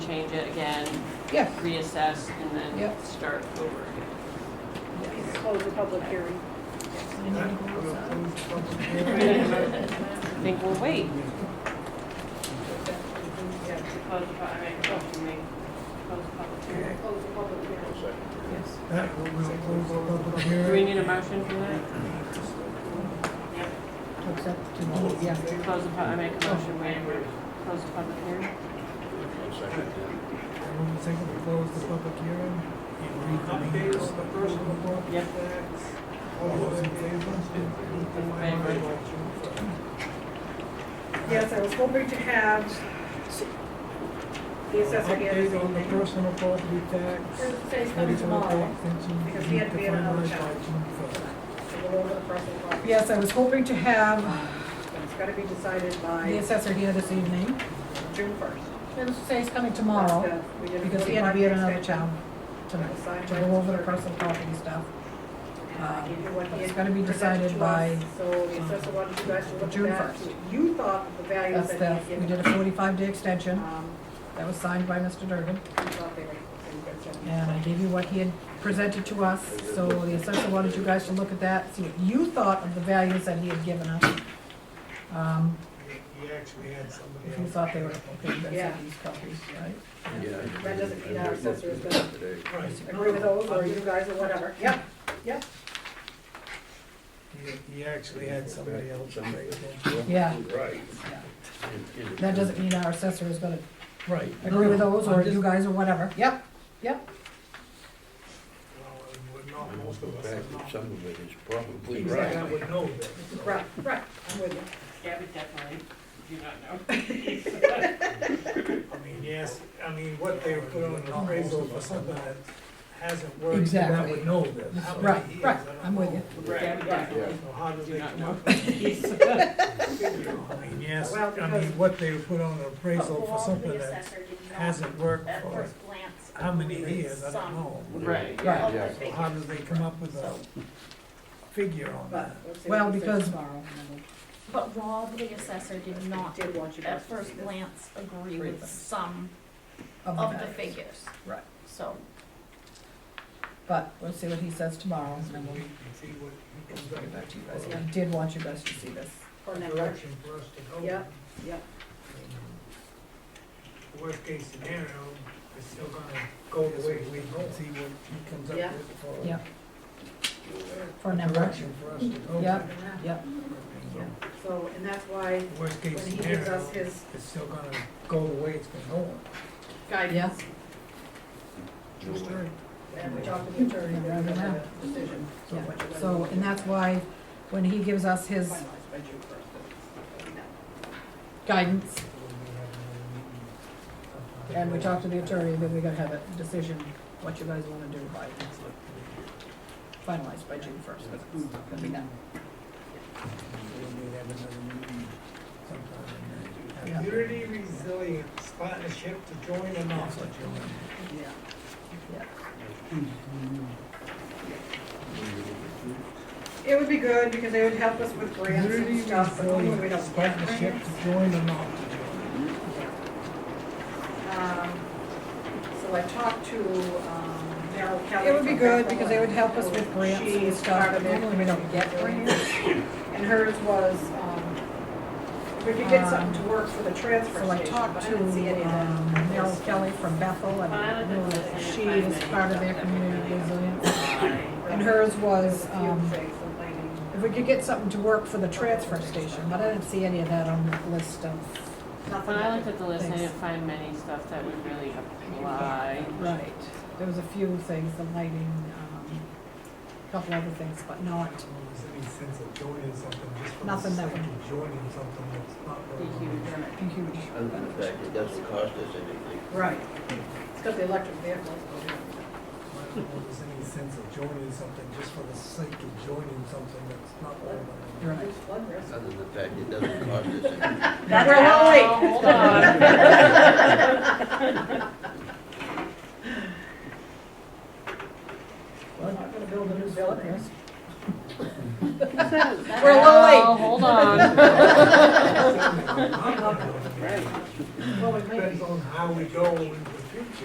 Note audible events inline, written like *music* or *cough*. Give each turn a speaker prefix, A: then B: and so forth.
A: again,
B: Yeah.
A: reassess, and then
B: Yep.
A: start over
B: *laughs*
A: again.
C: Close the public hearing.
A: I think we'll wait. Close the, pu- I mean, close the meeting, close the public hearing.
C: Close the public hearing.
D: That will close the
A: Do
D: public
A: we
D: hearing.
A: need a motion for that?
B: Accept to do, yeah.
A: Close the, pu- I make a motion, we close the public hearing.
D: Everyone think we close the public hearing? And reconvene the second report?
A: Yep.
D: All those in favor?
A: In favor.
C: Yes, I was hoping to have the assessor here this
D: Update on the
C: evening.
D: personal property tax.
C: Today's coming
D: medical
C: tomorrow.
D: extension,
C: because he had to be at another
D: finalize by
C: town.
D: June first.
C: So we'll go over the personal property.
B: Yes, I was hoping to have
C: It's gotta be decided
B: the
C: by
B: assessor here this evening.
C: June first.
B: He'll say he's coming tomorrow, because he had to be at another town tonight, to go over the personal property stuff. Uh, It's gotta be decided by, uh,
C: So the assessor wanted you guys to look
B: June
C: at that.
B: 1st.
C: You thought the values
B: That's the,
C: that he
B: we
C: had
B: did
C: given.
B: a forty-five day extension,
C: Um,
B: that was signed by Mr. Durgan.
C: you thought they were- they were good, so-
B: And I gave you what he had presented to us, so the assessor wanted you guys to look at that, see what you thought of the values that he had given us. Um,
D: He he actually had somebody
B: If you
D: else.
B: thought they were, okay, you guys
C: Yeah.
B: have these copies, right?
C: That doesn't mean our assessor is gonna
D: Right.
C: agree with those, or you guys, or whatever. Yep, yep.
D: He- He actually had somebody else.
B: Yeah,
E: Right.
B: that doesn't mean our assessor is gonna
D: Right.
B: agree with those, or
D: I'm just-
B: you guys, or whatever. Yep, yep,
D: Well, we're not, most
E: In
D: of us
E: fact,
D: are not.
E: some of it is probably
D: Exactly. I
E: right.
D: would know that.
C: Right, right, I'm with you.
A: Gabby definitely, do not know.
D: I mean, yes, I mean, what they put on the appraisal for something that hasn't worked. I
B: Exactly.
D: would know this. How many
B: right,
D: years,
B: right,
D: I don't
B: I'm with
D: know.
B: you.
A: Gabby definitely.
D: So how do
A: Do
D: they
A: not
D: come
A: know.
D: up with
A: *laughs*
D: these? I mean, yes,
C: Well,
D: I mean,
C: because-
D: what they put on the appraisal for
F: Well,
D: something
F: the
D: that
F: assessor did not
D: hasn't worked
F: at
D: for
F: first glance
D: how many
F: agree with
D: years, I don't
F: some
D: know.
A: Right.
F: of
B: Right.
F: the
E: Yeah.
D: So
F: figures.
D: how do they come up with a figure on
C: But
D: that?
C: let's see
B: Well,
C: what he says
B: because-
C: tomorrow.
F: But Rob, the assessor, did not
C: Did want you guys
F: at
C: to see
F: first
C: this.
F: glance agree
B: Agree with them.
F: with some
B: Of
F: of the
B: values.
F: figures,
B: Right,
F: so.
B: but we'll see what he says tomorrow, and
D: So
B: then
D: we
B: we'll
D: can see what he comes up
B: get back to you guys.
D: with.
B: I did want you guys to see this.
C: Or next year.
D: Direction for us to go.
C: Yep, yep.
D: Worst case scenario, it's still gonna go the way we go. See what he comes
C: up Yeah.
D: with
B: Yeah. For now,
D: Direction for us to go.
B: Yeah. yep,
C: So, and that's why
D: Worst case
C: when he gives
D: scenario,
C: us his
D: it's still gonna go the way it's been going.
C: guidance,
D: True story.
C: and we talk to the attorney,
B: Yeah,
C: then we
B: yeah.
C: have a decision. So
B: yeah.
C: what you guys
B: So,
C: want
B: and
C: to
B: that's why, when he gives us
C: do.
B: his
C: Finalize by June first.
B: guidance, and we talk
D: talked
B: to the attorney, then we gotta have a decision, what you guys wanna do by next week. Finalized by June first, because it's not gonna be done.
D: Community resilience partnership to join and off to join.
B: Yeah.
C: It would be good, because they would help us with grants and
D: Community
C: stuff, but hopefully we
D: resilience
C: don't get
D: partnership
C: grants.
D: to join and off to join.
C: Um, So I talked to um, Merrill Kelly.
B: It would be
C: from
B: good,
C: Bank
B: because they would help us with
C: Forward.
B: grants
C: She
B: and
C: is
B: stuff,
C: part
B: but
C: of it.
B: normally we don't get grants.
C: And hers was, um, if we could get something to work for the transfer
B: So I
C: station, but
B: talked
C: I
B: to
C: didn't see any of
B: um,
C: that.
B: Meryl Kelly from Bethel, and you know, she is part of their community resilience. And hers was,
C: Huge
B: um,
C: face of lighting.
B: if we could get something to work for the transfer station, but I didn't see any of that on the list of.
C: Nothing
A: When I
C: like
A: looked
C: it.
A: at the list, I
B: Thanks.
A: didn't find many stuff that would really apply.
B: Right. There was a few things, the lighting, um, a couple other things, but not,
D: There's any sense of joining something just for the
B: Nothing that
D: sake of joining something that's not.
A: Be
D: going on.
A: huge.
B: a huge.
E: Other than the fact it doesn't cost us anything.
C: Right. It's got the electric vehicles.
D: I don't know if There's any sense of joining something just for the sake of joining something that's not. going on.
B: Right.
C: There's flood risk.
E: Other than the fact it doesn't cost us anything.
C: That's a long wait.
A: Oh, Hold on.
B: We're not gonna build a new building.
C: We're a little late.
A: Oh, Hold on.
D: Something that's not going on.
C: Well, we may
D: Depends
C: be.
D: on how we go and